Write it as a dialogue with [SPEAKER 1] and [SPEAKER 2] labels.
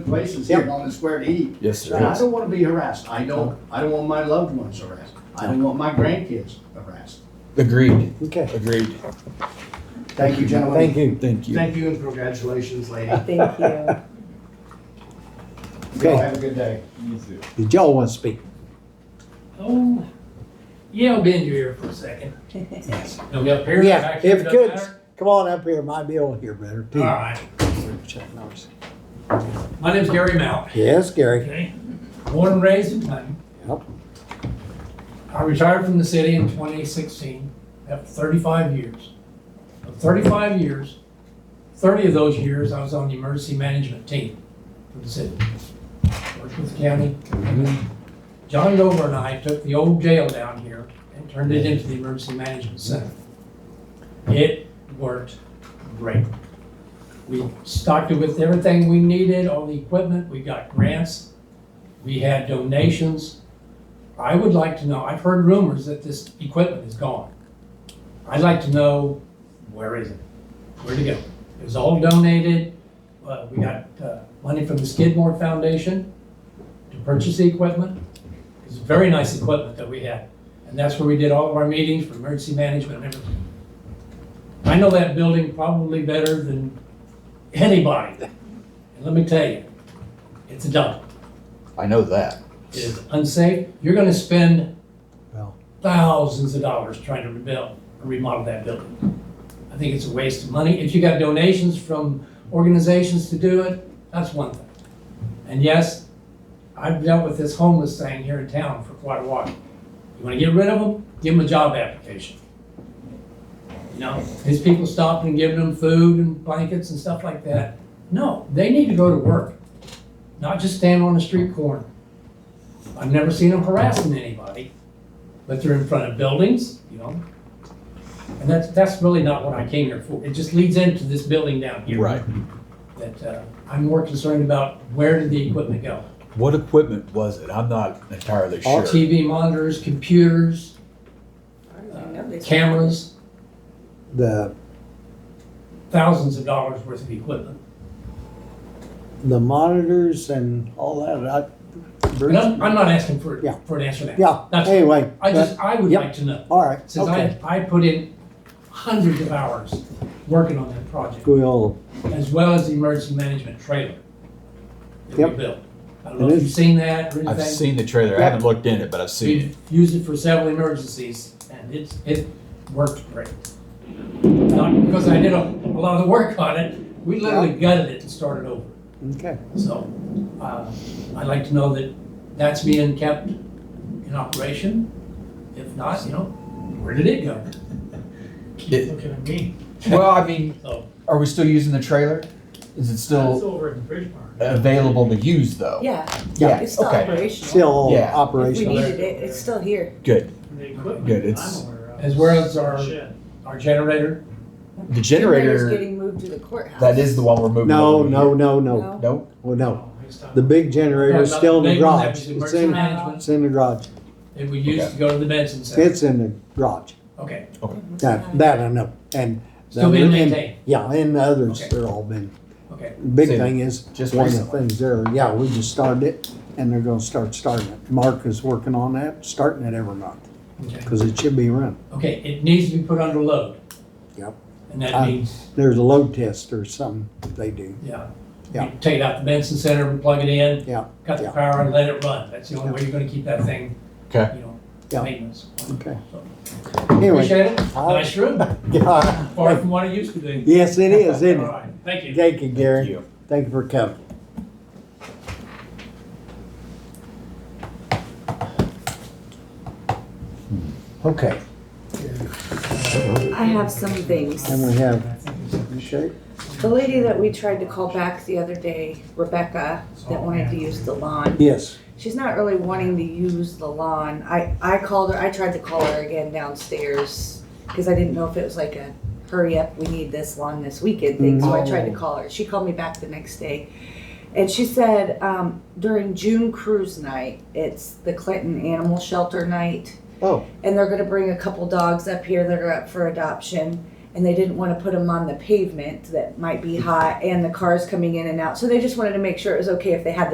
[SPEAKER 1] places here on the square to eat.
[SPEAKER 2] Yes, sir.
[SPEAKER 1] And I don't wanna be harassed. I don't, I don't want my loved ones harassed. I don't want my grandkids harassed.
[SPEAKER 2] Agreed.
[SPEAKER 3] Okay,
[SPEAKER 2] Agreed.
[SPEAKER 1] Thank you, gentlemen.
[SPEAKER 3] thank you.
[SPEAKER 2] Thank you.
[SPEAKER 1] Thank you and congratulations, lady.
[SPEAKER 4] Thank you.
[SPEAKER 1] Y'all
[SPEAKER 3] Okay,
[SPEAKER 1] have a good day.
[SPEAKER 3] did y'all want to speak?
[SPEAKER 5] Oh, yeah, I'll bend you here for a second. No, we up here?
[SPEAKER 3] Yeah,
[SPEAKER 5] back here,
[SPEAKER 3] if
[SPEAKER 5] doesn't
[SPEAKER 3] good,
[SPEAKER 5] matter?
[SPEAKER 3] come on up here, might be able to hear better
[SPEAKER 5] All
[SPEAKER 3] too.
[SPEAKER 5] right. My name's Gary Mount.
[SPEAKER 3] Yes, Gary.
[SPEAKER 5] Okay. Born and raised in Clinton.
[SPEAKER 3] Yep.
[SPEAKER 5] I retired from the city in 2016 after 35 years. Of 35 years, 30 of those years, I was on the emergency management team for the city. Worked with the county. John Dover and I took the old jail down here and turned it into the emergency management center. It worked great. We stocked it with everything we needed, all the equipment, we got grants, we had donations. I would like to know, I've heard rumors that this equipment is gone. I'd like to know, where is it? Where'd it go? It was all donated, uh, we got, uh, money from the Skidmore Foundation to purchase the equipment. It's very nice equipment that we had, and that's where we did all of our meetings for emergency management and everything. I know that building probably better than anybody, and let me tell you, it's a dump.
[SPEAKER 2] I know that.
[SPEAKER 5] It is unsafe. You're gonna spend
[SPEAKER 3] Well.
[SPEAKER 5] thousands of dollars trying to rebuild, or remodel that building. I think it's a waste of money. If you got donations from organizations to do it, that's one thing. And yes, I've dealt with this homeless thing here in town for quite a while. You wanna get rid of them, give them a job application. You know, these people stopping and giving them food and blankets and stuff like that. No, they need to go to work, not just stand on a street corner. I've never seen them harassing anybody, but they're in front of buildings, you know? And that's, that's really not what I came here for. It just leads into this building down here.
[SPEAKER 2] Right.
[SPEAKER 5] That, uh, I'm more concerned about where did the equipment go?
[SPEAKER 2] What equipment was it? I'm not entirely
[SPEAKER 5] All
[SPEAKER 2] sure.
[SPEAKER 5] TV monitors, computers, cameras,
[SPEAKER 3] The,
[SPEAKER 5] thousands of dollars worth of equipment.
[SPEAKER 3] the monitors and all that, I,
[SPEAKER 5] And
[SPEAKER 3] Bruce?
[SPEAKER 5] I'm, I'm not asking for,
[SPEAKER 3] Yeah.
[SPEAKER 5] for an answer now.
[SPEAKER 3] Yeah,
[SPEAKER 5] That's-
[SPEAKER 3] anyway, but,
[SPEAKER 5] I just, I would
[SPEAKER 3] Yep.
[SPEAKER 5] like to know,
[SPEAKER 3] all right,
[SPEAKER 5] since I,
[SPEAKER 3] okay.
[SPEAKER 5] I put in hundreds of hours working on that project.
[SPEAKER 3] We'll,
[SPEAKER 5] as well as the emergency management trailer that we
[SPEAKER 3] Yep.
[SPEAKER 5] built. I don't know
[SPEAKER 3] It
[SPEAKER 5] if
[SPEAKER 3] is.
[SPEAKER 5] you've seen that or
[SPEAKER 2] I've
[SPEAKER 5] anything.
[SPEAKER 2] seen the trailer. I
[SPEAKER 3] Yeah.
[SPEAKER 2] haven't looked in it, but I've seen it.
[SPEAKER 5] We've used it for several emergencies and it's, it worked great. Not because I did a, a lot of the work on it, we literally gutted it and started over.
[SPEAKER 3] okay,
[SPEAKER 5] So, uh, I'd like to know that that's being kept in operation. If not, you know, where did it go?
[SPEAKER 2] It-
[SPEAKER 6] Keep looking at me.
[SPEAKER 2] Well, I mean,
[SPEAKER 5] So,
[SPEAKER 2] are we still using the trailer? Is it
[SPEAKER 6] That's
[SPEAKER 2] still
[SPEAKER 6] over at Bridgepart.
[SPEAKER 2] available to use though?
[SPEAKER 4] Yeah,
[SPEAKER 3] yeah,
[SPEAKER 4] it's still
[SPEAKER 2] okay.
[SPEAKER 4] operational.
[SPEAKER 3] still
[SPEAKER 2] Yeah.
[SPEAKER 4] If we
[SPEAKER 3] operational.
[SPEAKER 4] needed it, it's still here.
[SPEAKER 2] Good.
[SPEAKER 6] The equipment
[SPEAKER 2] Good,
[SPEAKER 6] that
[SPEAKER 2] it's-
[SPEAKER 6] I'm aware of
[SPEAKER 5] As well as
[SPEAKER 6] is
[SPEAKER 5] our-
[SPEAKER 6] shed.
[SPEAKER 5] our generator,
[SPEAKER 2] The
[SPEAKER 4] Generator's
[SPEAKER 2] generator,
[SPEAKER 4] Getting moved to the courthouse.
[SPEAKER 2] that is the one we're moving.
[SPEAKER 3] No,
[SPEAKER 2] over
[SPEAKER 3] no,
[SPEAKER 2] here.
[SPEAKER 3] no, no,
[SPEAKER 4] No?
[SPEAKER 2] No?
[SPEAKER 3] well, no.
[SPEAKER 6] Next time.
[SPEAKER 3] The big generator's
[SPEAKER 5] Yeah,
[SPEAKER 3] still in the
[SPEAKER 5] big one that
[SPEAKER 3] garage.
[SPEAKER 5] was
[SPEAKER 3] It's
[SPEAKER 5] emergency
[SPEAKER 3] in,
[SPEAKER 5] management.
[SPEAKER 3] it's in the garage.
[SPEAKER 5] that we used
[SPEAKER 2] Okay.
[SPEAKER 5] to go to the Benson Center.
[SPEAKER 3] It's in the garage.
[SPEAKER 5] Okay,
[SPEAKER 3] That, that I know. And.
[SPEAKER 5] still being
[SPEAKER 3] and-
[SPEAKER 5] maintained,
[SPEAKER 3] Yeah, and the others,
[SPEAKER 5] Okay.
[SPEAKER 3] they're all been
[SPEAKER 5] okay.
[SPEAKER 3] Big
[SPEAKER 2] So,
[SPEAKER 3] thing is,
[SPEAKER 2] just
[SPEAKER 3] one of the
[SPEAKER 2] recently.
[SPEAKER 3] things there, yeah, we just started it and they're gonna start starting it. Mark is working on that, starting it every month,
[SPEAKER 5] Okay,
[SPEAKER 3] cause it should be run.
[SPEAKER 5] Okay. it needs to be put under load.
[SPEAKER 3] Yep.
[SPEAKER 5] And that
[SPEAKER 3] Um,
[SPEAKER 5] means,
[SPEAKER 3] There's a load test or something they do.
[SPEAKER 5] yeah.
[SPEAKER 3] yeah.
[SPEAKER 5] You Take it out the Benson Center and plug it in.
[SPEAKER 3] Yeah,
[SPEAKER 5] Cut the
[SPEAKER 3] yeah.
[SPEAKER 5] power and let it run. That's the only
[SPEAKER 3] Yeah.
[SPEAKER 5] way you're gonna keep that thing, you
[SPEAKER 2] Okay.
[SPEAKER 5] know,
[SPEAKER 3] Yeah.
[SPEAKER 5] maintenance.
[SPEAKER 3] Okay.
[SPEAKER 5] So,
[SPEAKER 3] Anyway.
[SPEAKER 5] Appreciate it.
[SPEAKER 3] I'll-
[SPEAKER 5] Nice room. Far
[SPEAKER 3] yeah.
[SPEAKER 5] from what it used to be.
[SPEAKER 3] Yes, it is,
[SPEAKER 5] All
[SPEAKER 3] isn't it?
[SPEAKER 5] right, thank you.
[SPEAKER 3] Thank you,
[SPEAKER 2] Thank
[SPEAKER 3] Gary.
[SPEAKER 2] you.
[SPEAKER 3] Thank you for coming. Hmm. Okay,
[SPEAKER 4] I have some things.
[SPEAKER 3] and we have, okay,
[SPEAKER 4] The lady that we tried to call back the other day, Rebecca, that wanted to use the lawn,
[SPEAKER 3] yes,
[SPEAKER 4] she's not really wanting to use the lawn. I, I called her, I tried to call her again downstairs because I didn't know if it was like a hurry up, we need this lawn this weekend thing. So I tried to
[SPEAKER 3] No.
[SPEAKER 4] call her. She called me back the next day. And she said um, during June cruise night, it's the Clinton Animal Shelter night
[SPEAKER 3] oh,
[SPEAKER 4] and they're going to bring a couple dogs up here that are up for adoption. and they didn't want to put them on the pavement that might be hot and the cars coming in and out. So they just wanted to make sure it was okay if they had the